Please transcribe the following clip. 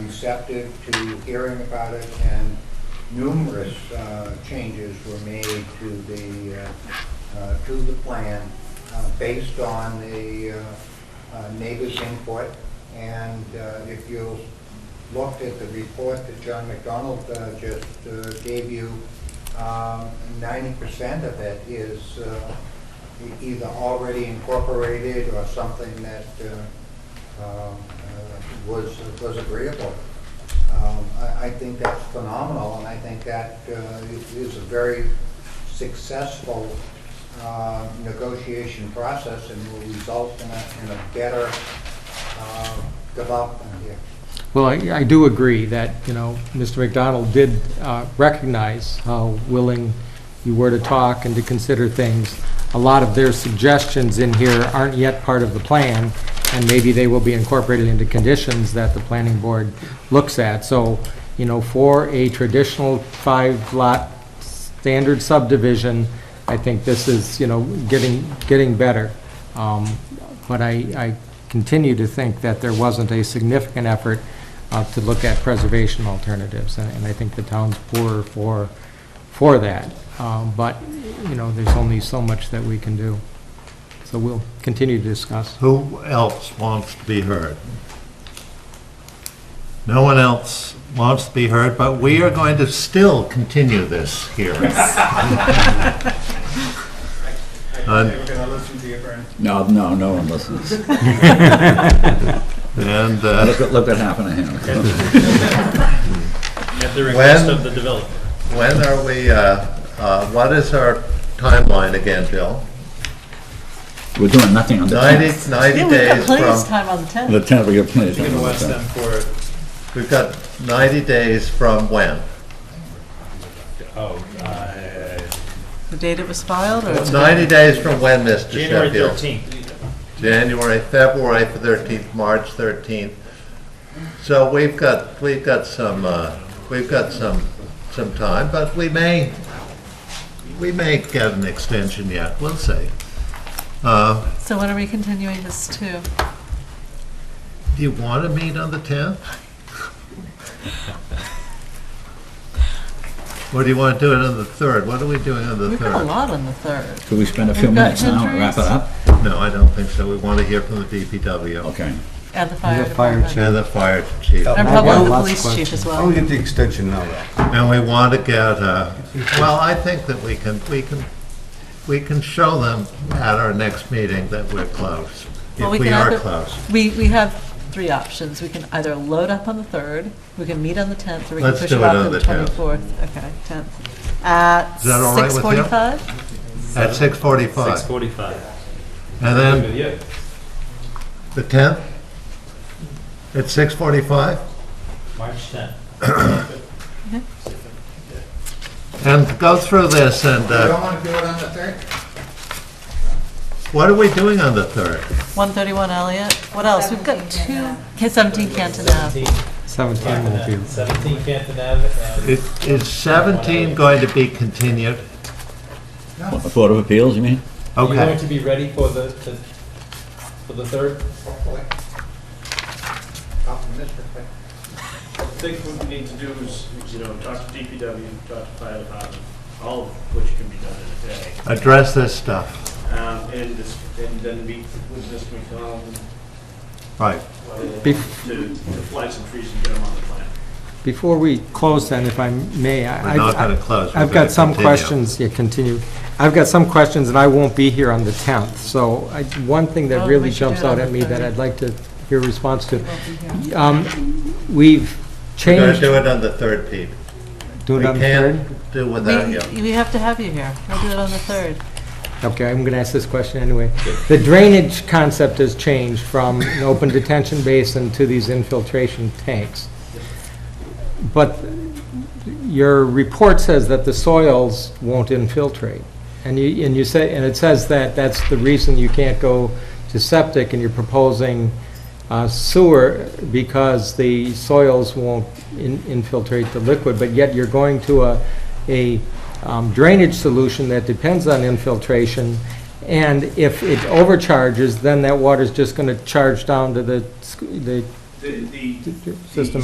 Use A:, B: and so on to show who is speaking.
A: receptive to hearing about it, and numerous uh, changes were made to the, uh, uh, to the plan uh, based on the uh, uh, neighbors' input. And uh, if you looked at the report that John McDonald uh, just uh, gave you, um, ninety percent of it is uh, e- either already incorporated or something that uh, um, uh, was, was agreeable. Um, I, I think that's phenomenal, and I think that uh, i- is a very successful uh, negotiation process and will result in a, in a better uh, development here.
B: Well, I I do agree that, you know, Mr. McDonald did uh, recognize how willing you were to talk and to consider things. A lot of their suggestions in here aren't yet part of the plan, and maybe they will be incorporated into conditions that the planning board looks at. So, you know, for a traditional five-lot standard subdivision, I think this is, you know, getting, getting better. Um, But I, I continue to think that there wasn't a significant effort uh, to look at preservation alternatives, and and I think the town's poorer for, for that. Um, But, you know, there's only so much that we can do. So we'll continue to discuss.
C: Who else wants to be heard? No one else wants to be heard, but we are going to still continue this hearing. And-
A: we're gonna listen to you, Brian.
D: No, no, no one listens.
C: And uh,
D: Look at, look what happened to him.
E: At the request
C: When-
E: of the developer.
C: when are we, uh, uh, what is our timeline again, Bill?
D: We're doing nothing on the 10th.
C: 90, 90
F: Yeah, we've got
C: days
F: plenty of
C: from,
F: time on the 10th.
D: The 10th, we got plenty of
E: You
D: time
E: can
D: on the
E: ask
D: 10th.
E: them for,
C: we've got 90 days from when?
E: oh, uh,
F: The date it was filed, or?
C: 90 days from when, Mr.
E: January
C: Sheffield?
E: 13th.
C: January, February 13th, March 13th. So we've got, we've got some, uh, we've got some, some time, but we may, we may get an extension yet, we'll see. Uh,
F: So when are we continuing this to?
C: Do you want to meet on the 10th? Or do you want to do it on the 3rd? What are we doing on the 3rd?
F: We've got a lot on the 3rd.
D: Could we spend a few
F: We've got
D: minutes now and wrap it up?
C: No, I don't think so. We want to hear from the DPW
D: Okay.
F: And the fire
B: the fire
F: department.
C: and the fire chief.
F: And
G: I've got
F: probably the
B: lots of
F: police chief as
G: I'll
F: well.
G: get the extension now, though.
C: And we want to get, uh, well, I think that we can, we can, we can show them at our next meeting that we're close, if
F: Well, we
C: we
F: can
C: are
F: either-
C: close.
F: We, we have three options. We can either load up on the 3rd, we can meet on the 10th, or we can
C: Let's
F: push
C: do
F: it
C: it
F: off
C: on
F: to the
C: the 10th.
F: 24th. Okay, 10th. At
C: Is that all right with you?
F: 6:45?
C: At 6:45.
E: 6:45.
C: And then the 10th? At 6:45?
E: March 10th.
C: And go through this and,
A: You don't
C: uh,
A: wanna do it on the third?
C: what are we doing on the 3rd?
F: 131 Elliott. What else? We've got two, K- 17 Canton Ave.
B: 17 will be,
E: 17 Canton Ave. and-
C: Is- Is 17 going to be continued?
D: What, the Board of Appeals, you mean?
E: Are you going
C: Okay,
E: to be ready for the, the- for the third?
A: Hopefully. Oh, Optimistic.
H: I think what we need to do is, you know, talk to DPW, talk to fire department, all of which can be done in a day.
C: address this stuff.
H: Um, and this, and then meet with Mr. McDonald
C: Right.
H: and
B: Bef-
H: to, to fly some trees and get them on the plan.
B: Before we close then, if I may, I...
C: We're not
B: I-
C: going to close. We're
B: I've
C: gonna
B: got some
C: continue.
B: questions, yeah, continue. I've got some questions, and I won't be here on the 10th, so I- one thing
F: Oh,
B: that
F: we
B: really
F: should do
B: jumps
F: it on
B: out at
F: the
B: me that
F: 30th.
B: I'd like to hear a response to. Um, We've
C: We're going to
B: changed,
C: do it on the 3rd, Pete.
B: do
C: We
B: it on the 3rd?
C: can't do without you.
F: We, we have to have you here. We'll do it on the 3rd.
B: Okay, I'm going to ask this question anyway. The drainage concept has changed from an open detention basin to these infiltration tanks. But your report says that the soils won't infiltrate. And you, and you say, and it says that that's the reason you can't go to septic and you're proposing uh, sewer because the soils won't in- infiltrate the liquid, but yet you're going to a, a um, drainage solution that depends on infiltration. And if it overcharges, then that water's just going to charge down to the, sc- the
H: The, the
B: system